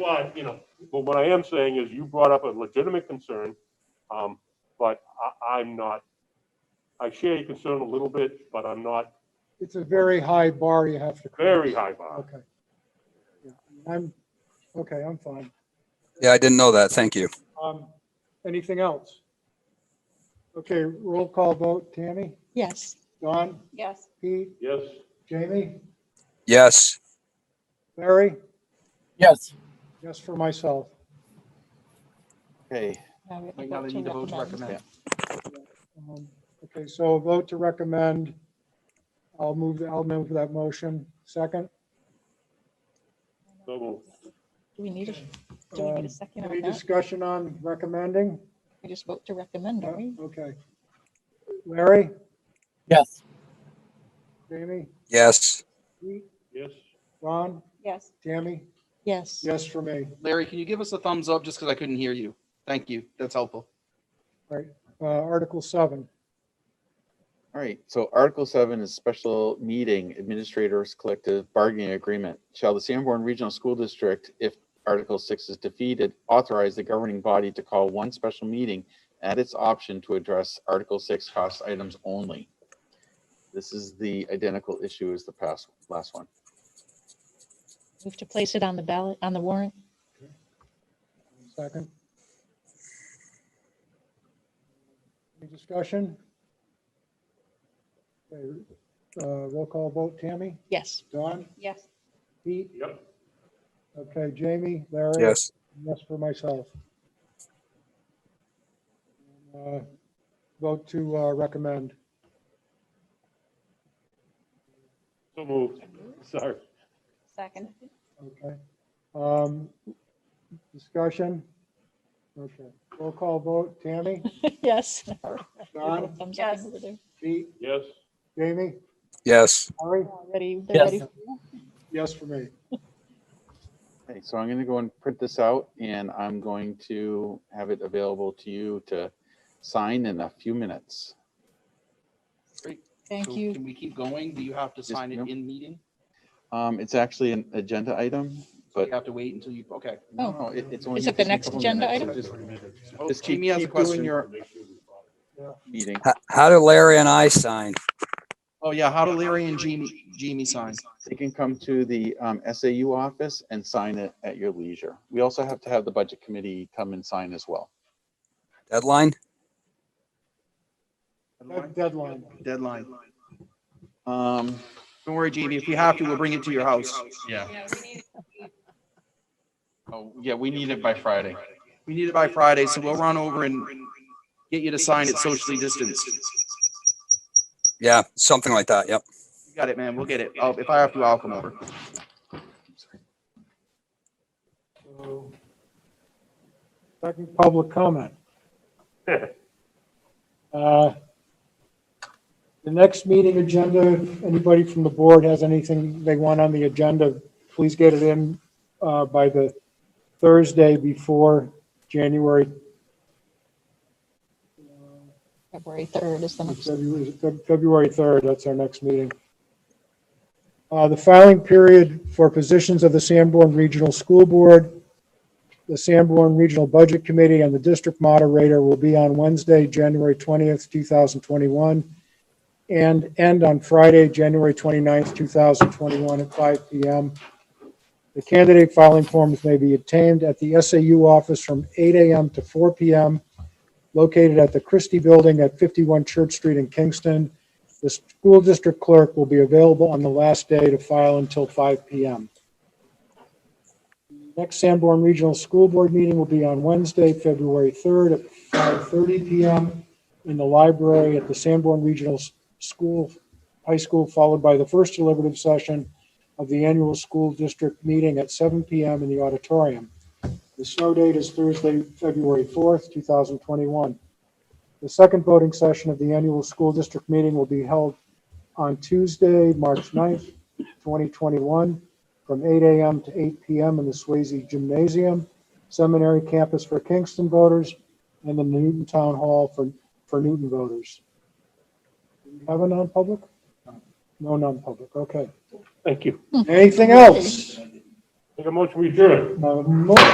why, you know, but what I am saying is you brought up a legitimate concern. Um, but I, I'm not, I share your concern a little bit, but I'm not It's a very high bar you have to. cross. very high bar. Okay. Yeah, I'm, okay, I'm fine. Yeah, I didn't know that. Thank you. Um, anything else? Okay, roll call vote. Tammy? Yes. Don? Yes. Pete? Yes, Jamie? Yes, Larry? Yes. Yes, for myself. Okay. Right Now they need to vote to recommend. Um, Okay, so a vote to recommend. I'll move, I'll move that motion. Second? so moved. Do we need a, do we need Um, a second Any on that? discussion on recommending? We just vote to recommend, Uh, don't we? Okay. Larry? Yes. Jamie? yes, Pete? yes, Ron? Yes. Tammy? Yes. Yes for me. Larry, can you give us a thumbs up just because I couldn't hear you? Thank you. That's helpful. Uh, Article 7. All right, so Article seven is special meeting administrators collective bargaining agreement. Shall the Sanborn Regional School District, if Article six is defeated, authorize the governing body to call one special meeting at its option to address Article six cost items only? This is the identical issue as the past, last one. Move to place it on the ballot, on the warrant? Second. Any discussion? Okay, uh, Roll call vote, Tammy? Yes. Don? Yes. Pete? yep, Okay, Jamie? Larry? yes, Yes for myself. Uh, Vote to uh, recommend. so moved. Sorry. Second. Okay. Um, Discussion? Okay. Roll call vote, Tammy? Yes. Um, Don? Thumbs up Yes. over there. Pete? Yes, Jamie? yes, Larry? Ready, they're ready. for you? Yes for me. Okay, so I'm gonna go and print this out and I'm going to have it available to you to sign in a few minutes. Thank So you. Can we keep going? Do you have to Yes, sign it no. in meeting? Um, it's actually an agenda item, Do but you have to wait until you, okay. no, Oh. no, it- it's only. Is it the just a next couple agenda minutes, item? so just- Oh, Just keep, Jamie has a keep doing question. your meeting. H- how do Larry and I sign? Oh, yeah. How do Larry and Jamie, Jamie sign? You can come to the um, SAU office and sign it at your leisure. We also have to have the budget committee come and sign as well. Deadline? Deadline. Deadline. Um, Don't worry, Jamie. If we have to, we'll bring it to your house. Yeah. oh, yeah, we need it by Friday. We need it by Friday, so we'll run over and get you to sign it socially distanced. Yeah, something like that. Yep. You Got it, man. We'll get it. Oh, If I have to, I'll come over. So, Second public comment. Uh, The next meeting agenda, if anybody from the board has anything they want on the agenda, please get it in uh, by the Thursday before January, February 3rd is the next. February February 3rd, that's our next meeting. Uh, The filing period for positions of the Sanborn Regional School Board the Sanborn Regional Budget Committee and the district moderator will be on Wednesday, January 20th, 2021, and end on Friday, January 29th, 2021 at 5 PM. The candidate filing forms may be obtained at the SAU office from 8 AM to 4 PM, located at the Christie Building at 51 Church Street in Kingston. The school district clerk will be available on the last day to file until 5 PM. Next Sanborn Regional School Board meeting will be on Wednesday, February 3rd at 5:30 PM in the library at the Sanborn Regional S- School, High School, followed by the first deliberative session of the annual school district meeting at 7 PM in the auditorium. The snow date is Thursday, February 4th, 2021. The second voting session of the annual school district meeting will be held on Tuesday, March 9th, 2021, from 8 a.m. to 8 p.m. in the Swayze Gymnasium, Seminary Campus for Kingston voters, and the Newton Town Hall for, for Newton voters. Do we Have a non-public? No non-public, okay. thank you. Anything else? Make a motion, we adjourn. Uh, mo-